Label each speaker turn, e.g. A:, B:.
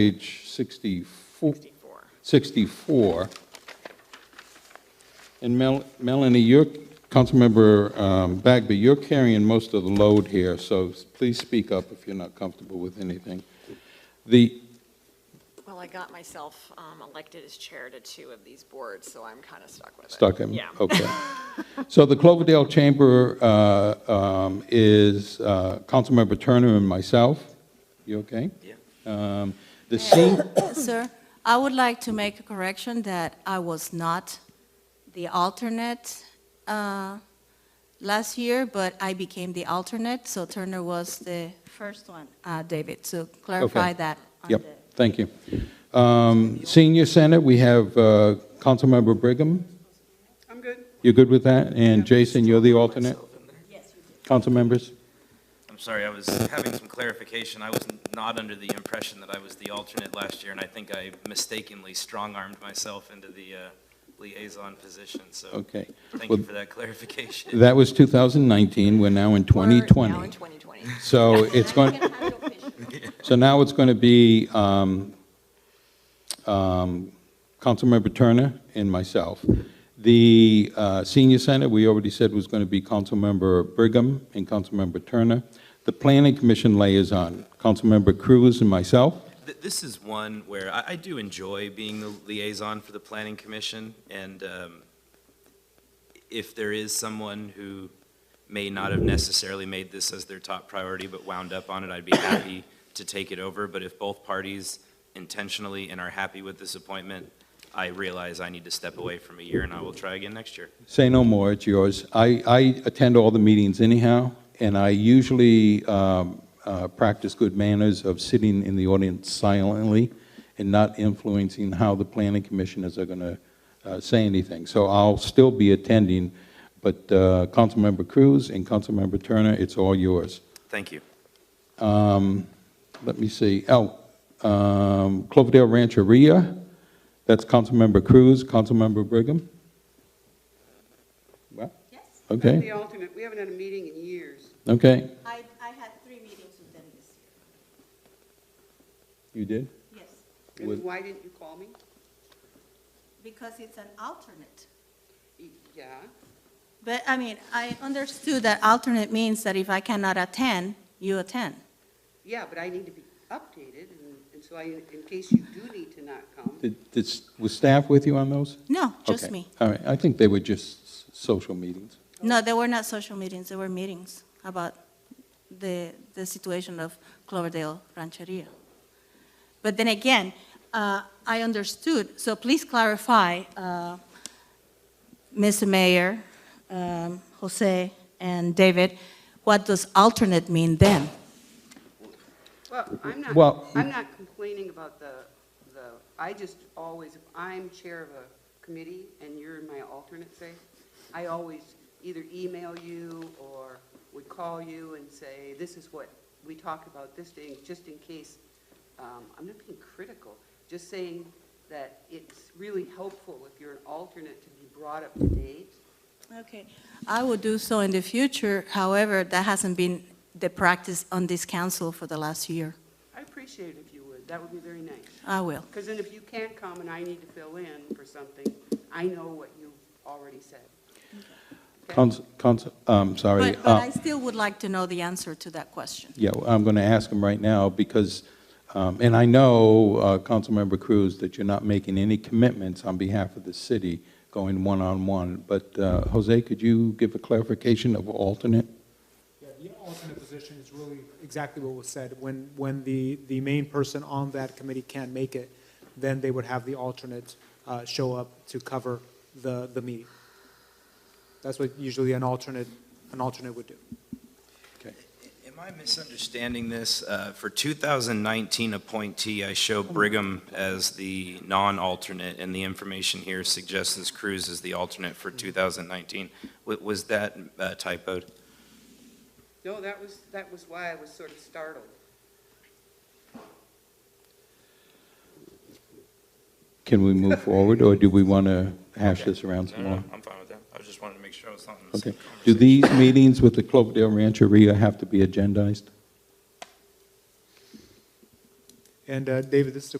A: page 64.
B: 64.
A: 64. And Mel- Melanie, you're, Councilmember um, Bagby, you're carrying most of the load here, so s- please speak up if you're not comfortable with anything. The,
B: Well, I got myself um, elected as chair to two of these boards, so I'm kind of stuck with it.
A: Stuck in?
B: Yeah.
A: Okay. So the Cloverdale Chamber uh, um, is uh, Councilmember Turner and myself. You okay? Yeah. The senior,
C: Sir, I would like to make a correction that I was not the alternate uh, last year, but I became the alternate, so Turner was the first one, uh, David, so clarify that. on
A: yep,
C: the-
A: thank you. Um, Senior Senate, we have uh, Councilmember Brigham.
D: I'm good.
A: You're good with that? And Jason, you're the alternate? Council members?
E: I'm sorry, I was having some clarification. I was not under the impression that I was the alternate last year, and I think I mistakenly strong-armed myself into the uh, liaison position, so
A: Okay.
E: thank
A: Well,
E: you for that clarification.
A: That was 2019, we're now in
B: We're now in
A: 2020.
B: 2020.
A: So it's going, so now it's going to be um, um, Councilmember Turner and myself. The uh, Senior Senate, we already said was going to be Councilmember Brigham and Councilmember Turner. The Planning Commission liaison, Councilmember Cruz and myself.
E: Th- This is one where I, I do enjoy being the liaison for the planning commission, and um, if there is someone who may not have necessarily made this as their top priority but wound up on it, I'd be happy to take it over, but if both parties intentionally and are happy with this appointment, I realize I need to step away from a year, and I will try again next year.
A: Say no more, it's yours. I, I attend all the meetings anyhow, and I usually um, uh, practice good manners of sitting in the audience silently and not influencing how the planning commissioners are going to uh, say anything. So I'll still be attending, but uh, Councilmember Cruz and Councilmember Turner, it's all yours.
E: Thank you.
A: Um, Let me see, oh, um, Cloverdale Rancheria, that's Councilmember Cruz, Councilmember Brigham? Well,
D: I'm
A: Okay,
D: the alternate. We haven't had a meeting in years.
A: okay,
C: I, I had three meetings with them this
A: you did?
C: year, yes,
D: And
A: Would-
D: why didn't you call me?
C: because it's an alternate.
D: Y- Yeah.
C: But, I mean, I understood that alternate means that if I cannot attend, you attend.
D: Yeah, but I need to be updated, and- and so I, in case you do need to not come.
A: Did- did s- Was staff with you on those?
C: No, just
A: Okay.
C: me.
A: All right, I think they were just s- social meetings.
C: No, they were not social meetings, they were meetings about the, the situation of Cloverdale Rancheria. But then again, uh, I understood, so please clarify, uh, Mr. Mayor, um, Jose, and David, what does alternate mean then?
D: Well, I'm
A: Well-
D: not, I'm not complaining about the, the, I just always, if I'm chair of a committee and you're my alternate, say, I always either email you or would call you and say, this is what we talked about this day, just in case, um, I'm not being critical, just saying that it's really helpful if you're an alternate to be brought up to date.
C: Okay, I will do so in the future, however, that hasn't been the practice on this council for the last year.
D: I appreciate it if you would, that would be very nice.
C: I will.
D: Because then if you can't come and I need to fill in for something, I know what you've already said. Okay?
A: Council, council, I'm sorry.
C: But, but
A: uh,
C: I still would like to know the answer to that question.
A: Yeah, well, I'm going to ask him right now because, um, and I know, uh, Councilmember Cruz, that you're not making any commitments on behalf of the city going one-on-one, but uh, Jose, could you give a clarification of alternate?
F: Yeah, the alternate position is really exactly what was said. When, when the, the main person on that committee can't make it, then they would have the alternate uh, show up to cover the, the meeting. That's what usually an alternate, an alternate would do.
E: Am I misunderstanding this? Uh, For 2019 appointee, I show Brigham as the non-alternate, and the information here suggests this Cruz is the alternate for 2019. Wa- Was that uh, typoed?
D: No, that was, that was why I was sort of startled.
A: Can we move forward, or do we want to hash this around some more?
E: I'm fine with that. I just wanted to make sure I was not in
A: Okay. Do
E: the
A: these meetings with the Cloverdale Rancheria have to be agendized?
F: And uh, David, this is a